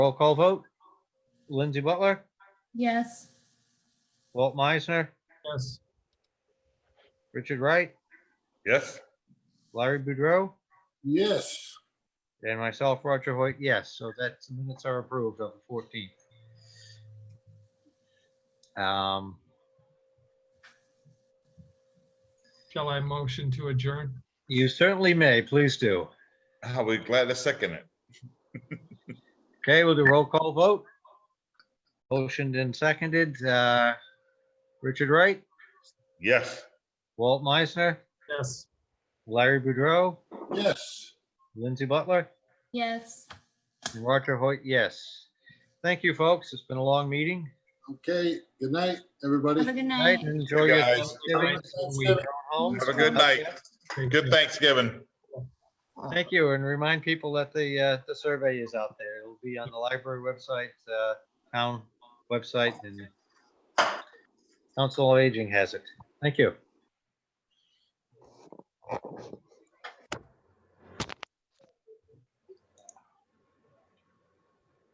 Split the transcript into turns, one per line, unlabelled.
Roll call vote. Lindsay Butler,
Yes.
Walt Meisner,
Yes.
Richard Wright,
Yes,
Larry Boudreau,
Yes.
and myself, Roger Hoyt, yes. So that's, the minutes are approved of the 14th. Um,
Shall I motion to adjourn?
You certainly may. Please do.
I'll be glad to second it.
Okay, we'll do roll call vote. Motioned and seconded. Uh, Richard Wright,
Yes,
Walt Meisner,
Yes.
Larry Boudreau,
Yes.
Lindsay Butler,
Yes.
and Roger Hoyt, yes. Thank you, folks. It's been a long meeting.
Okay, good night,
Have a
everybody.
good
Night,
night.
and enjoy your
Guys.
Thanksgiving. Home.
have a good night.
Thank
Good
you.
Thanksgiving.
Thank you, and remind people that the, uh, the survey is out there. It'll be on the library website, uh, town website, and Council of Aging has it. Thank you.